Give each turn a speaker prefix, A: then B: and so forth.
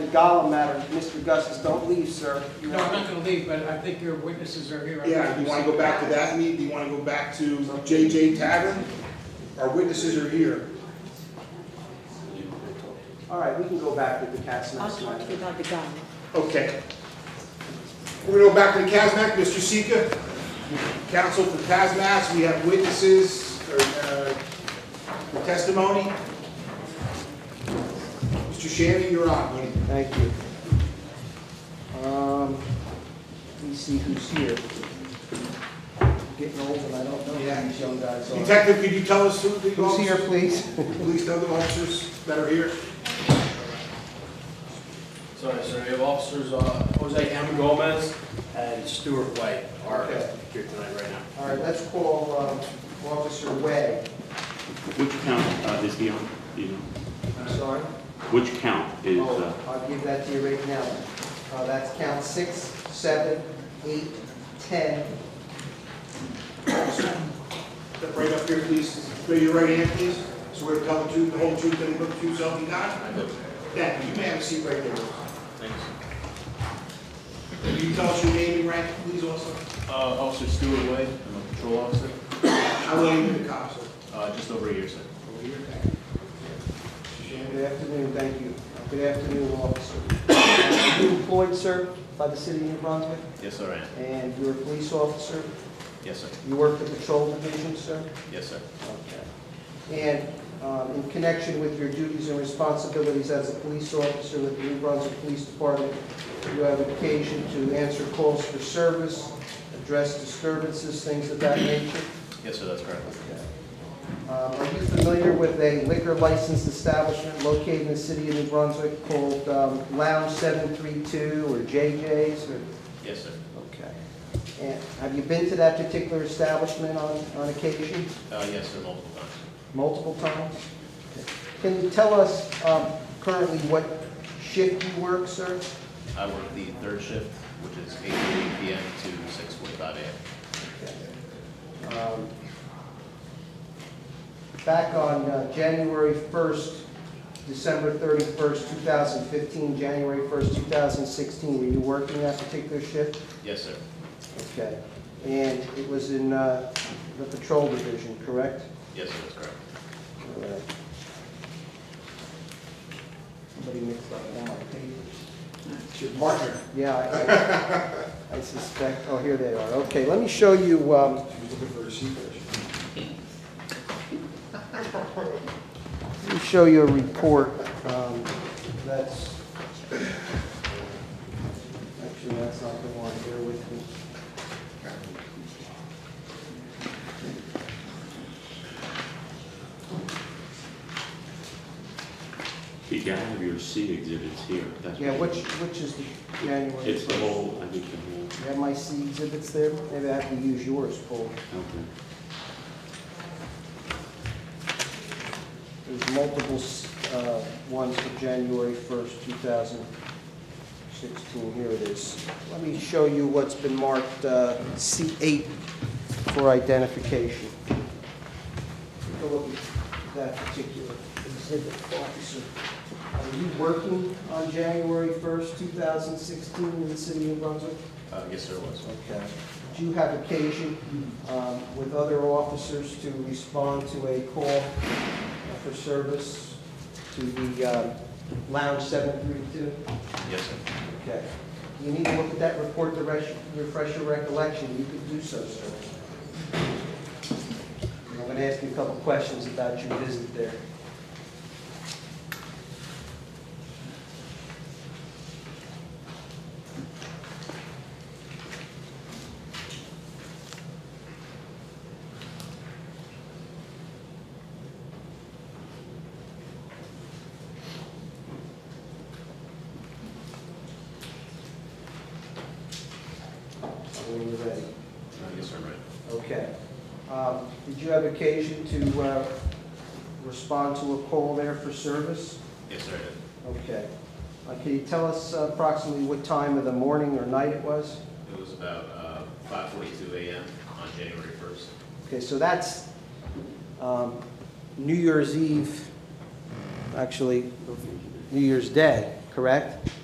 A: Gollum matter, Mr. Gussis, don't leave, sir. You
B: No, I'm
A: have-
B: not gonna leave, but I think your witnesses are here.
C: Yeah, do you wanna go back to that meeting? Do you wanna go back to JJ Tavern? Our witnesses are here.
A: All right, we can go back to the cat's
D: I'll
A: nest.
D: talk to you about the gun.
C: Okay. We're gonna go back to the Casmac, Mr. Sika. Counsel for Casmac, we have witnesses, or, uh, for testimony. Mr. Shannon, you're on, buddy.
A: Thank you. Um, Let me see who's here. Getting old and I don't know who these young guys are.
C: Detective, could you tell us who the
A: Who's here,
C: officers,
A: please?
C: police, other officers that are here?
E: Sorry, sir, we have officers, uh, Jose M. Gomez and Stuart White are
A: Okay.
E: here tonight right now.
A: All right, let's call um, Officer Webb.
F: Which count uh, is he on, do you know?
A: I'm sorry.
F: Which count is, uh,
A: Oh, I'll give that to you right now. Uh, That's count six, seven, eight, ten.
C: Step right up here, please. Raise your right hand, please. Swear to tell the truth, the whole truth, and the truth, so help you God.
E: I do.
C: Yeah, you may have a seat right there.
E: Thanks.
C: Can you tell us your name and rank, please, also?
E: Uh, Officer Stuart White, I'm a patrol officer,
C: How long you been a cop, sir?
E: uh, just over a year, sir.
C: Over here, thank you.
A: Good afternoon, thank you. Good afternoon, officer. Are you employed, sir, by the city of New Brunswick?
E: Yes, sir, I am.
A: And you're a police officer?
E: Yes, sir.
A: You work the patrol division, sir?
E: Yes, sir.
A: Okay. And um, in connection with your duties and responsibilities as a police officer with the New Brunswick Police Department, you have occasion to answer calls for service, address disturbances, things of that nature?
E: Yes, sir, that's correct.
A: Um, Are you familiar with a liquor licensed establishment located in the city of New Brunswick called um, Lounge 732 or JJ's or?
E: Yes, sir.
A: Okay. And have you been to that particular establishment on, on occasion?
E: Uh, yes, sir, multiple times.
A: Multiple times? Can you tell us um, currently what shift you work, sir?
E: I work the third shift, which is eight thirty PM to six forty-five AM.
A: Um, Back on uh, January 1st, December 31st, 2015, January 1st, 2016, were you working that particular shift?
E: Yes, sir.
A: Okay. And it was in uh, the patrol division, correct?
E: Yes, sir, that's correct.
A: All right. Somebody mixed up all my papers.
C: It's your partner.
A: Yeah, I- I- I suspect, oh, here they are. Okay, let me show you, um,
C: She was looking for a seat there.
A: let me show you a report um, that's, actually, that's not the one, bear with me.
F: you gotta have your C exhibits here. That's
A: Yeah,
F: what-
A: which, which is the January?
F: It's the
A: first?
F: whole, I think the whole,
A: You have my C exhibits there? Maybe I have to use yours, Paul.
F: okay.
A: There's multiple s- uh, ones for January 1st, 2016. Here it is. Let me show you what's been marked uh, C8 for identification. Take a look at that particular exhibit, officer. Are you working on January 1st, 2016 in the city of Brunswick?
E: Uh, yes, sir, it was.
A: Okay. Do you have occasion um, with other officers to respond to a call for service to the um, Lounge 732?
E: Yes, sir.
A: Okay. You need to look at that report to res- refresh your recollection. You could do so, sir. And I'm going to ask you a couple questions about your visit there. When you're ready.
E: Uh, yes, sir, right.
A: Okay. Um, Did you have occasion to uh, respond to a call there for service?
E: Yes, sir, I did.
A: Okay. Uh, Can you tell us approximately what time of the morning or night it was?
E: It was about uh, 5:42 a.m. on January 1st.
A: Okay, so that's um, New Year's Eve, actually, New Year's Day, correct?